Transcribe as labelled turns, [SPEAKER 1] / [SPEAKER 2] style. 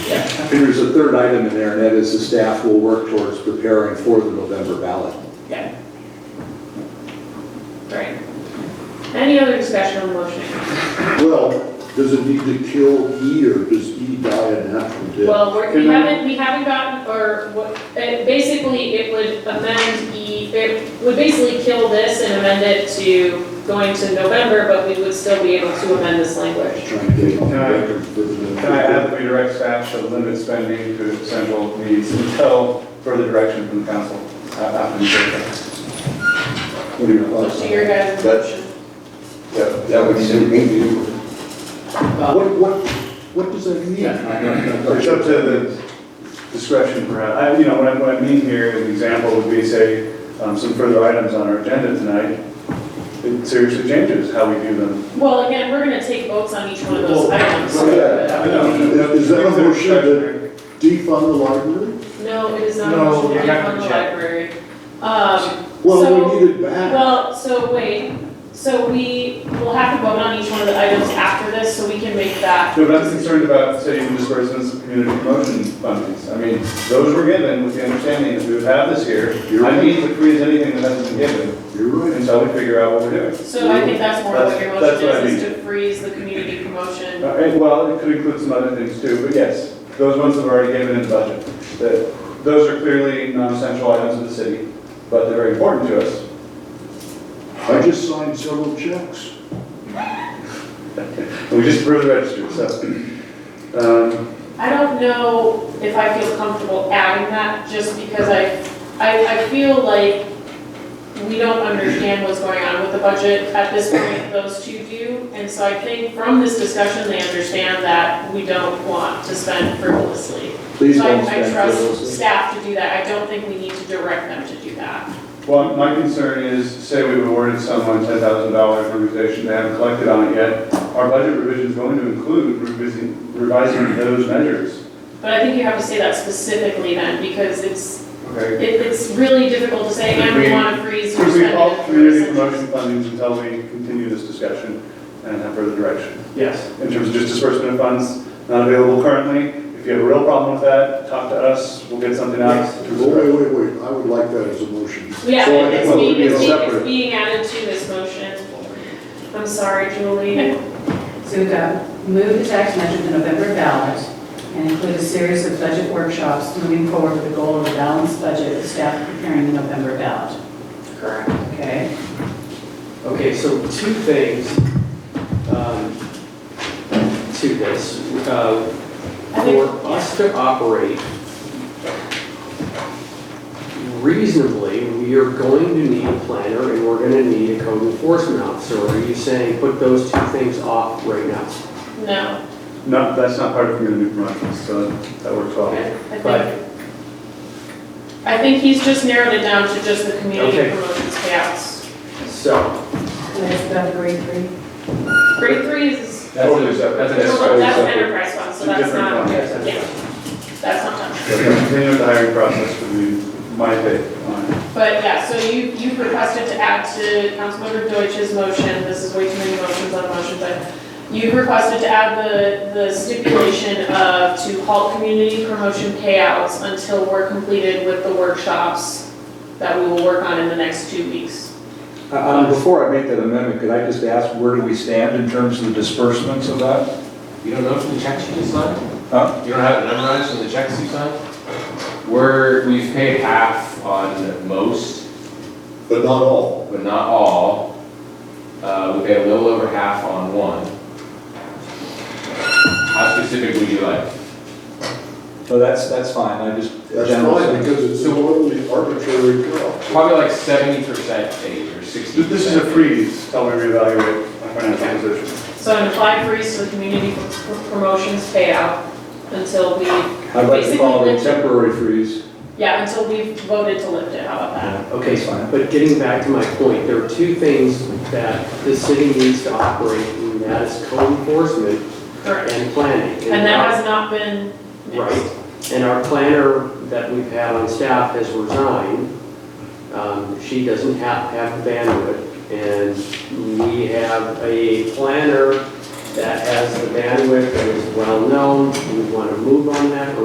[SPEAKER 1] And there's a third item in there, and that is the staff will work towards preparing for the November ballot.
[SPEAKER 2] Yeah. Right. Any other discussion on the motion?
[SPEAKER 3] Well, does it need to kill E or does E die a natural death?
[SPEAKER 2] Well, we're- we
[SPEAKER 3] Can I-
[SPEAKER 2] haven't, we haven't gotten, or what, uh, basically, it would amend E, it would basically kill this and amend it to going to November, but we would still be able to amend this language.
[SPEAKER 3] Trying to get on the
[SPEAKER 4] Can I-
[SPEAKER 3] record for the-
[SPEAKER 4] Can I have redirect staff to limit spending to essential needs until further direction from the council? Uh, after the meeting.
[SPEAKER 3] What are your
[SPEAKER 2] So
[SPEAKER 3] thoughts?
[SPEAKER 2] to your guys'
[SPEAKER 5] That's-
[SPEAKER 2] motion.
[SPEAKER 5] That that would suit me.
[SPEAKER 2] Uh,
[SPEAKER 3] What, what, what does that mean?
[SPEAKER 4] It's up to the discretion perhaps. I, you know, what I, what I mean here, an example would be, say, um, some further items on our agenda tonight. It seriously changes how we view them.
[SPEAKER 2] Well, again, we're gonna take votes on each one of those items.
[SPEAKER 3] Yeah. Is that a motion that- Defund the library?
[SPEAKER 2] No, it is not a
[SPEAKER 6] No,
[SPEAKER 2] motion
[SPEAKER 6] we're
[SPEAKER 2] to
[SPEAKER 6] not
[SPEAKER 2] fund
[SPEAKER 6] gonna
[SPEAKER 2] the
[SPEAKER 6] check.
[SPEAKER 2] library. Um, so-
[SPEAKER 3] Well, we need it back.
[SPEAKER 2] Well, so wait, so we will have to vote on each one of the items after this, so we can make that.
[SPEAKER 4] No, but I'm concerned about city disbursements of community promotion fundings. I mean, those were given with the understanding that we would have this year.
[SPEAKER 3] You're
[SPEAKER 4] I
[SPEAKER 3] right.
[SPEAKER 4] mean, to freeze anything that hasn't been given
[SPEAKER 3] You're right.
[SPEAKER 4] until we figure out what we're doing.
[SPEAKER 2] So I think that's more what your
[SPEAKER 4] That's-
[SPEAKER 2] motion
[SPEAKER 4] that's what I
[SPEAKER 2] is, is to freeze the community promotion.
[SPEAKER 4] All right, well, it could include some other things too, but yes, those ones that are already given in the budget. The- Those are clearly non-essential items of the city, but they're very important to us.
[SPEAKER 3] I just signed several checks.
[SPEAKER 4] And we just approved the register, so. um,
[SPEAKER 2] I don't know if I feel comfortable adding that, just because I, I, I feel like we don't understand what's going on with the budget at this point, those two do. And so I think from this discussion, they understand that we don't want to spend frivolously.
[SPEAKER 1] Please
[SPEAKER 2] So I-
[SPEAKER 1] don't spend
[SPEAKER 2] I trust
[SPEAKER 1] frivolously.
[SPEAKER 2] staff to do that, I don't think we need to direct them to do that.
[SPEAKER 4] Well, my concern is, say we awarded someone ten thousand dollars for organization, they haven't collected on it yet. Our budget revision is going to include revising, revising those measures.
[SPEAKER 2] But I think you have to say that specifically then, because it's,
[SPEAKER 4] Okay.
[SPEAKER 2] it, it's really difficult to say, and
[SPEAKER 4] Could
[SPEAKER 2] we
[SPEAKER 4] we-
[SPEAKER 2] wanna freeze your
[SPEAKER 4] Could we
[SPEAKER 2] spending.
[SPEAKER 4] halt community promotion fundings until we continue this discussion and have further direction?
[SPEAKER 6] Yes.
[SPEAKER 4] in terms of just disbursement of funds not available currently. If you have a real problem with that, talk to us, we'll get something out.
[SPEAKER 3] Wait, wait, wait, I would like that as a motion.
[SPEAKER 2] Yeah,
[SPEAKER 3] So I
[SPEAKER 2] it's
[SPEAKER 3] think
[SPEAKER 2] being,
[SPEAKER 3] it would be
[SPEAKER 2] it's being,
[SPEAKER 3] separate.
[SPEAKER 2] it's being added to this motion. I'm sorry, Julie.
[SPEAKER 7] Zuga, move the tax measure to November ballot and include a series of budget workshops moving forward with the goal of a balanced budget with staff preparing the November ballot.
[SPEAKER 2] Correct.
[SPEAKER 7] Okay?
[SPEAKER 6] Okay, so two things um, to this. Uh,
[SPEAKER 2] I
[SPEAKER 6] For
[SPEAKER 2] think-
[SPEAKER 6] us to operate reasonably, we are going to need a planner and we're going to need a code enforcement officer. Are you saying put those two things off right now?
[SPEAKER 2] No,
[SPEAKER 4] No, that's not part of community promotion, so that works well.
[SPEAKER 2] I
[SPEAKER 6] But-
[SPEAKER 2] think, I think he's just narrowed it down to just the community
[SPEAKER 6] Okay.
[SPEAKER 2] promotions payouts.
[SPEAKER 6] So,
[SPEAKER 7] Let's go to grade three.
[SPEAKER 2] Grade three is
[SPEAKER 4] Totally separate.
[SPEAKER 2] No,
[SPEAKER 4] Totally
[SPEAKER 2] That's an
[SPEAKER 4] separate.
[SPEAKER 2] enterprise fund, so
[SPEAKER 4] It's a
[SPEAKER 2] that's
[SPEAKER 4] different
[SPEAKER 2] not,
[SPEAKER 4] fund.
[SPEAKER 2] yeah, that's not done.
[SPEAKER 4] Continue with the hiring process would be my take on it.
[SPEAKER 2] But yeah, so you, you've requested to add to Councilmember Deutsch's motion, this is way too many motions on motion, but you've requested to add the, the stipulation of to halt community promotion payouts until we're completed with the workshops that we will work on in the next two weeks.
[SPEAKER 1] Uh, Um, before I make that amendment, could I just ask, where do we stand in terms of the disbursements of that?
[SPEAKER 8] You don't know from the checks you just signed?
[SPEAKER 1] Huh?
[SPEAKER 8] You don't have it memorized from the checks you signed? We're, we've paid half on most,
[SPEAKER 3] But not all.
[SPEAKER 8] but not all. Uh, we paid a little over half on one. How specific would you like?
[SPEAKER 1] No, that's, that's fine, I just.
[SPEAKER 3] That's
[SPEAKER 1] General
[SPEAKER 3] fine,
[SPEAKER 1] sense.
[SPEAKER 3] because it's a totally arbitrary cut.
[SPEAKER 8] Probably like seventy percent paid or sixty
[SPEAKER 4] Th-
[SPEAKER 8] percent.
[SPEAKER 4] This is a freeze, till we reevaluate our financial position.
[SPEAKER 2] So an applied freeze to the community pr- promotions payout until we,
[SPEAKER 1] I'd like to call it a
[SPEAKER 2] Basically, the-
[SPEAKER 1] temporary freeze.
[SPEAKER 2] yeah, until we've voted to lift it, how about that?
[SPEAKER 6] okay,
[SPEAKER 1] That's fine.
[SPEAKER 6] But getting back to my point, there are two things that the city needs to operate, and that is code enforcement
[SPEAKER 2] Correct.
[SPEAKER 6] and planning.
[SPEAKER 2] And that has not been mixed.
[SPEAKER 6] Right, and our planner that we've had on staff has resigned. Um, She doesn't have, have the bandwidth, and we have a planner that has the bandwidth and is well-known, we want to move on that,